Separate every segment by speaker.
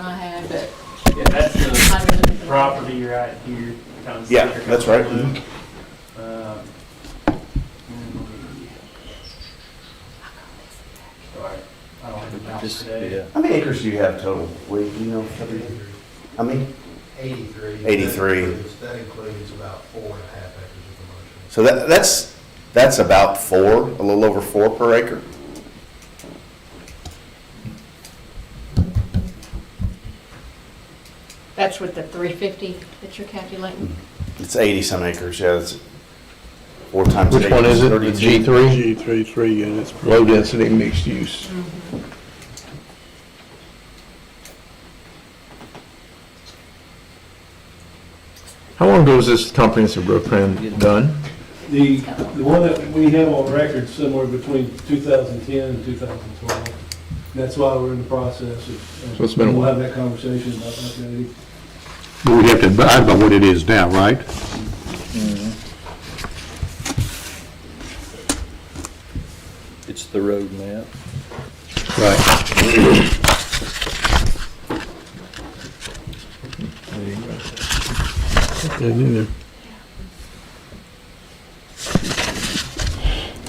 Speaker 1: time, but
Speaker 2: Yeah, that's the
Speaker 1: I'm gonna.
Speaker 2: property right here. kind of
Speaker 3: Yeah,
Speaker 2: sticker
Speaker 3: that's
Speaker 2: kind
Speaker 3: right.
Speaker 2: of look. Um, Sorry, I don't have the mouse
Speaker 4: Just,
Speaker 2: today.
Speaker 4: yeah.
Speaker 3: How many acres do you have total? Wade, do you know? How many?
Speaker 5: 83.
Speaker 3: 83.
Speaker 5: That includes- That includes about four and a half acres of commercial.
Speaker 3: So that, that's, that's about four, a little over four per acre.
Speaker 1: That's with the three fifty that you're calculating?
Speaker 3: It's 80-some acres, yeah, it's four times.
Speaker 6: Which
Speaker 3: eight
Speaker 6: one is it? The
Speaker 3: 32.
Speaker 6: G three?
Speaker 7: G three, three units.
Speaker 6: Low density mixed use. How long ago was this comprehensive road plan done?
Speaker 8: The, the one that we have on record somewhere between 2010 and 2012. That's why we're in the process of.
Speaker 6: So it's been a
Speaker 8: We'll
Speaker 6: while.
Speaker 8: have that conversation about that.
Speaker 7: But we have to abide by what it is now, right?
Speaker 4: Mm-hmm. It's the road map.
Speaker 7: Right.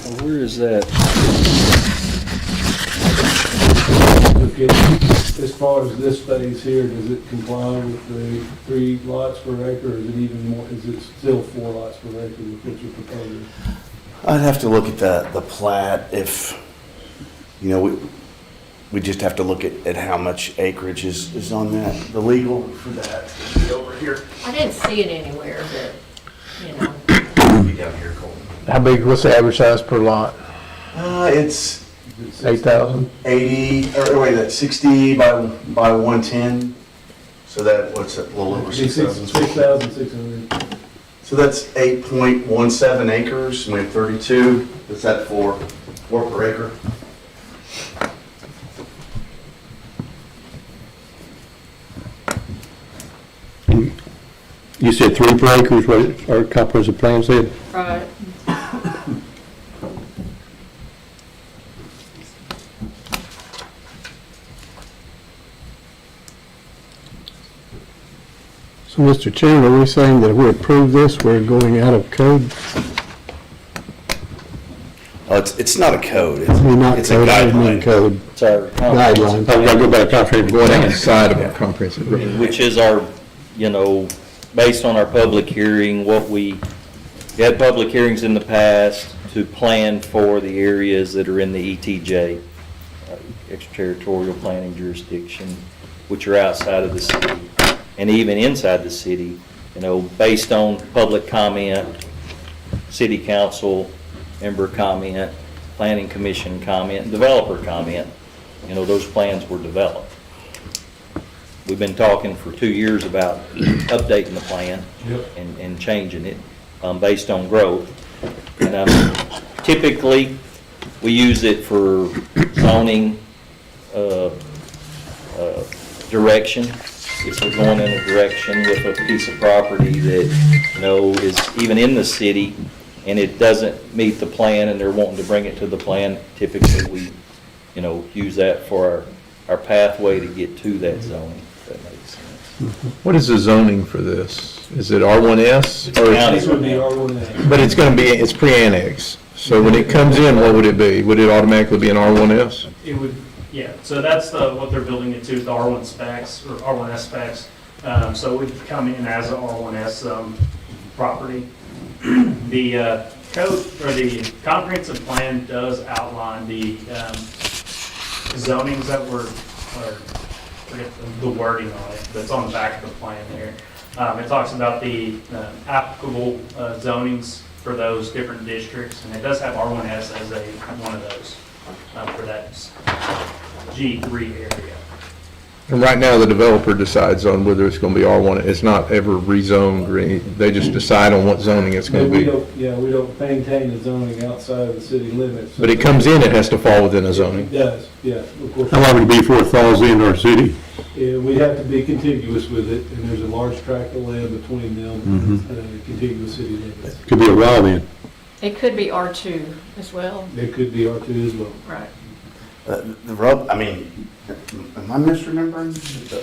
Speaker 4: Well, Where is that?
Speaker 8: Okay, as far as this phase here, does it comply with the three lots per acre, or is it even more, is it still four lots per acre with what you're proposing?
Speaker 3: I'd have to look at the, the plat if, you know, we, we just have to look at, at how much acreage is, is on that. The legal for that would be over here.
Speaker 1: I didn't see it anywhere, but, you know,
Speaker 3: It'd be down here, Colton.
Speaker 6: How big, what's the average size per lot?
Speaker 3: Uh, it's
Speaker 8: Is it six-
Speaker 6: Eight thousand?
Speaker 3: 80, or oh, wait, that's 60 by, by 110. So that, what's it, a little over
Speaker 8: It'd be six-
Speaker 3: 6,000?
Speaker 8: 6,600.
Speaker 3: So that's 8.17 acres, and we have 32. Is that four, four per acre?
Speaker 7: You said three per acre is what our comprehensive plan said?
Speaker 1: right,
Speaker 7: So, Mr. Chairman, are we saying that if we approve this, we're going out of code?
Speaker 3: Oh, it's, it's not a code. It's,
Speaker 7: We're not
Speaker 3: it's a
Speaker 7: code, I mean
Speaker 3: guideline.
Speaker 7: code
Speaker 4: It's our. Oh,
Speaker 7: guidelines. I've got to go by the comprehensive
Speaker 6: Going
Speaker 7: plan.
Speaker 6: outside of a comprehensive road. plan.
Speaker 4: Which is our, you know, based on our public hearing, what we, we had public hearings in the past to plan for the areas that are in the ETJ, uh, extraterritorial planning jurisdiction, which are outside of the city, and even inside the city, you know, based on public comment, city council member comment, planning commission comment, developer comment, you know, those plans were developed. We've been talking for two years about updating the plan
Speaker 8: Yep.
Speaker 4: and, and changing it, um, based on growth. And, um, typically, we use it for zoning, uh, uh, direction. If we're going in a direction with a piece of property that, you know, is even in the city and it doesn't meet the plan and they're wanting to bring it to the plan, typically we, you know, use that for our, our pathway to get to that zoning, if that makes sense.
Speaker 6: What is the zoning for this? Is it R one S?
Speaker 4: County.
Speaker 8: This would be R1A.
Speaker 6: But it's gonna be, it's pre-annex. So when it comes in, what would it be? Would it automatically be an R one S?
Speaker 2: It would, yeah, so that's the, what they're building it to, is the R1 specs, or R1S specs. Um, So it would come in as a R1S um, property. The uh, code, or the comprehensive plan does outline the um, zonings that were, or, forget the- the wording on it, that's on the back of the plan here. Um, It talks about the uh, applicable uh, zonings for those different districts, and it does have R1S as a, one of those uh, for that G3 area.
Speaker 6: And right now, the developer decides on whether it's gonna be R one. It's not ever rezoned or any, they just decide on what zoning it's gonna
Speaker 8: And we
Speaker 6: be.
Speaker 8: don't, yeah, we don't maintain the zoning outside of the city limits.
Speaker 6: But it comes in, it has to fall within a
Speaker 8: It
Speaker 6: zoning.
Speaker 8: does, yeah, of course.
Speaker 7: How long would it be before it falls into our city?
Speaker 8: Yeah, we have to be contiguous with it, and there's a large tract of land between them and the contiguous city limits.
Speaker 7: Could be a while then.
Speaker 1: it could be R two as well,
Speaker 8: There could be R two as well.
Speaker 1: right?
Speaker 3: Uh, The rub, I mean, am I misremembering? The